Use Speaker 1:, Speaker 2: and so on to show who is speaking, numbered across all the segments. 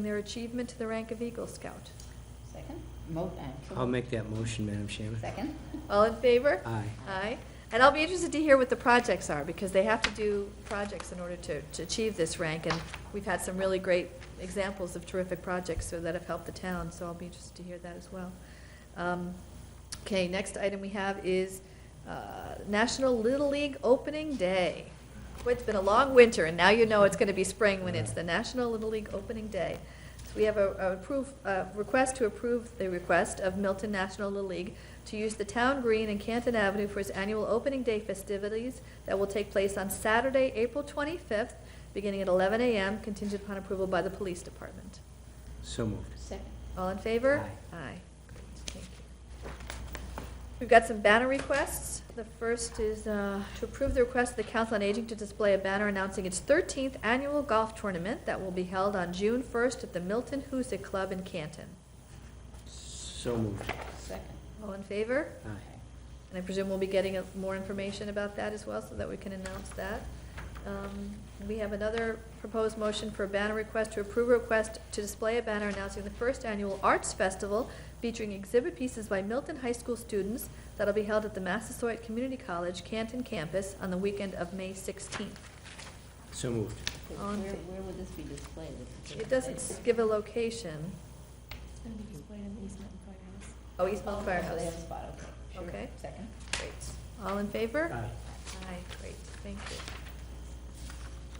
Speaker 1: their achievement to the rank of Eagle Scout.
Speaker 2: Second? Mo, uh, so-
Speaker 3: I'll make that motion, Madam Chairman.
Speaker 2: Second?
Speaker 1: All in favor?
Speaker 3: Aye.
Speaker 1: Aye. And I'll be interested to hear what the projects are, because they have to do projects in order to, to achieve this rank, and we've had some really great examples of terrific projects so that have helped the town, so I'll be interested to hear that as well. Um, Okay, next item we have is uh, National Little League Opening Day. Boy, It's been a long winter, and now you know it's gonna be spring when it's the National Little League Opening Day. So we have a, a approve, a request to approve the request of Milton National Little League to use the town green and Canton Avenue for its annual opening day festivities that will take place on Saturday, April twenty-fifth, beginning at eleven AM, contingent upon approval by the police department.
Speaker 3: So moved.
Speaker 2: Second.
Speaker 1: All in favor? Aye. Thank you. We've got some banner requests. The first is uh, to approve the request of the Council on Aging to display a banner announcing its 13th annual golf tournament that will be held on June 1st at the Milton Hoosic Club in Canton.
Speaker 3: So moved.
Speaker 2: Second.
Speaker 1: All in favor?
Speaker 3: Aye.
Speaker 1: And I presume we'll be getting uh, more information about that as well, so that we can announce that. Um, We have another proposed motion for a banner request to approve a request to display a banner announcing the first annual Arts Festival featuring exhibit pieces by Milton High School students that'll be held at the Massasoit Community College Canton campus on the weekend of May 16th.
Speaker 3: So moved.
Speaker 2: Where,
Speaker 1: On fa-
Speaker 2: where would this be displayed? This is
Speaker 1: It doesn't s- give a location.
Speaker 4: It's gonna be displayed in the East Mountain Firehouse.
Speaker 1: Oh, East Milton
Speaker 2: Oh, they have a
Speaker 1: Firehouse.
Speaker 2: spot, okay. Sure.
Speaker 1: Okay.
Speaker 2: Second?
Speaker 1: All in favor?
Speaker 3: Aye.
Speaker 1: Aye, great, thank you.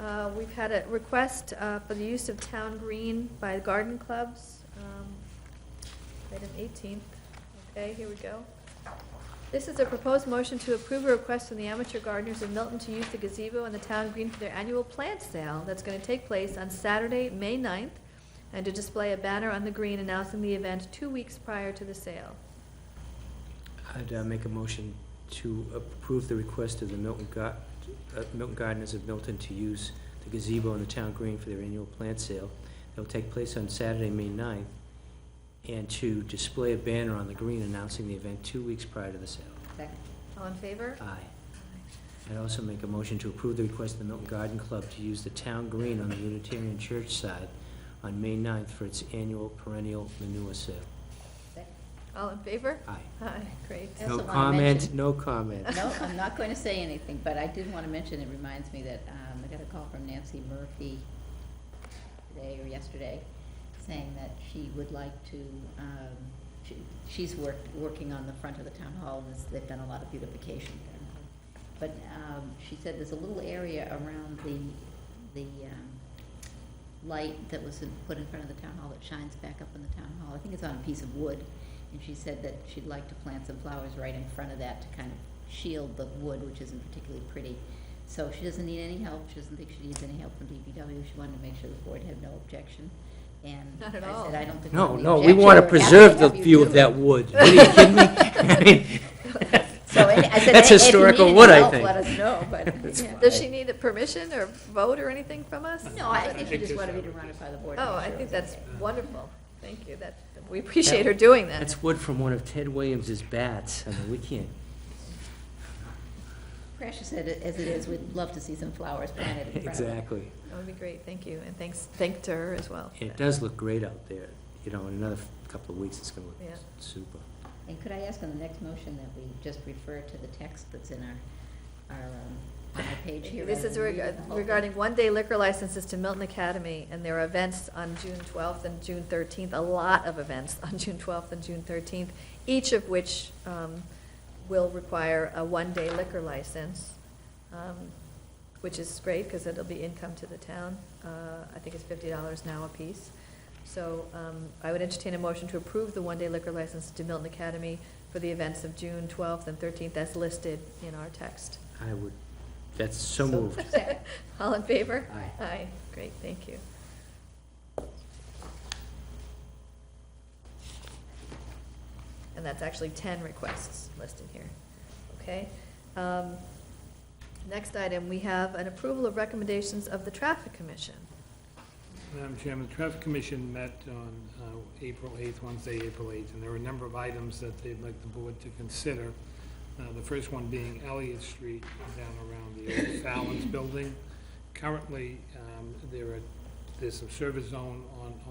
Speaker 1: Uh, We've had a request uh, for the use of town green by the garden clubs, um, item 18th. Okay, here we go. This is a proposed motion to approve a request from the amateur gardeners of Milton to use the gazebo and the town green for their annual plant sale that's going to take place on Saturday, May 9th, and to display a banner on the green announcing the event two weeks prior to the sale.
Speaker 3: I'd uh, make a motion to approve the request of the Milton Gar- uh, Milton Gardeners of Milton to use the gazebo and the town green for their annual plant sale. That'll take place on Saturday, May 9th, and to display a banner on the green announcing the event two weeks prior to the sale.
Speaker 2: Second.
Speaker 1: All in favor?
Speaker 3: Aye. I'd also make a motion to approve the request of the Milton Garden Club to use the town green on the Unitarian Church side on May 9th for its annual perennial manure sale.
Speaker 2: Second.
Speaker 1: All in favor?
Speaker 3: Aye.
Speaker 1: Aye, great.
Speaker 2: I
Speaker 3: No
Speaker 2: also wanna
Speaker 3: comment,
Speaker 2: mention-
Speaker 3: no comment.
Speaker 2: No, I'm not going to say anything, but I did want to mention, it reminds me that um, I got a call from Nancy Murphy today or yesterday, saying that she would like to, um, she- she's worked, working on the front of the town hall, and this- they've done a lot of beautification there. But um, she said there's a little area around the, the um, light that was in- put in front of the town hall that shines back up in the town hall. I think it's on a piece of wood. And she said that she'd like to plant some flowers right in front of that to kind of shield the wood, which isn't particularly pretty. So she doesn't need any help. She doesn't think she needs any help from DPW. She wanted to make sure the board had no objection. And I
Speaker 1: Not at
Speaker 2: said,
Speaker 1: all.
Speaker 2: I don't think. we have
Speaker 3: No,
Speaker 2: any
Speaker 3: no, we
Speaker 2: objection.
Speaker 3: want
Speaker 2: We're
Speaker 3: to
Speaker 2: happy
Speaker 3: preserve the
Speaker 2: have you
Speaker 3: view
Speaker 2: do
Speaker 3: of
Speaker 2: it."
Speaker 3: that wood. What are you kidding me? I mean,
Speaker 2: So any- I said,
Speaker 3: That's
Speaker 2: "Hey, if you
Speaker 3: historical
Speaker 2: need any
Speaker 3: wood, I
Speaker 2: help,
Speaker 3: think.
Speaker 2: Let us know, but. yeah.
Speaker 1: Does she need a permission or vote or anything from us?
Speaker 2: No, I think she just wanted me to run it by the board. to
Speaker 1: Oh,
Speaker 2: make
Speaker 1: I
Speaker 2: sure it
Speaker 1: think
Speaker 2: was
Speaker 1: that's
Speaker 2: okay.
Speaker 1: wonderful. Thank you. That, we appreciate her doing that.
Speaker 3: That's wood from one of Ted Williams's bats. I mean, we can't.
Speaker 2: Precious said, as it is, we'd love to see some flowers planted in front of it.
Speaker 3: Exactly.
Speaker 1: That would be great, thank you, and thanks, thank to her as well.
Speaker 3: It does look great out there. You know, in another couple of weeks, it's going to
Speaker 1: Yeah.
Speaker 3: look super.
Speaker 2: And could I ask on the next motion that we just refer to the text that's in our, our, um, on the page here?
Speaker 1: This
Speaker 2: rather
Speaker 1: is
Speaker 2: than
Speaker 1: reg-
Speaker 2: reading the whole thing?
Speaker 1: regarding one-day liquor licenses to Milton Academy, and there are events on June twelfth and June thirteenth, a lot of events on June twelfth and June thirteenth, each of which um, will require a one-day liquor license, um, which is great, because it'll be income to the town. Uh, I think it's fifty dollars now apiece. So um, I would entertain a motion to approve the one-day liquor license to Milton Academy for the events of June twelfth and thirteenth as listed in our text.
Speaker 3: I would, that's so moved.
Speaker 2: Second.
Speaker 1: All in favor?
Speaker 3: Aye.
Speaker 1: Aye, great, thank you. And that's actually ten requests listed here, okay? Um, Next item, we have an approval of recommendations of the Traffic Commission.
Speaker 5: Madam Chairman, the Traffic Commission met on uh, April 8th, Wednesday, April 8th, and there were a number of items that they'd like the board to consider. Uh, The first one being Elliott Street down around the old Fallon's building. Currently, um, there are, there's some service zone on, on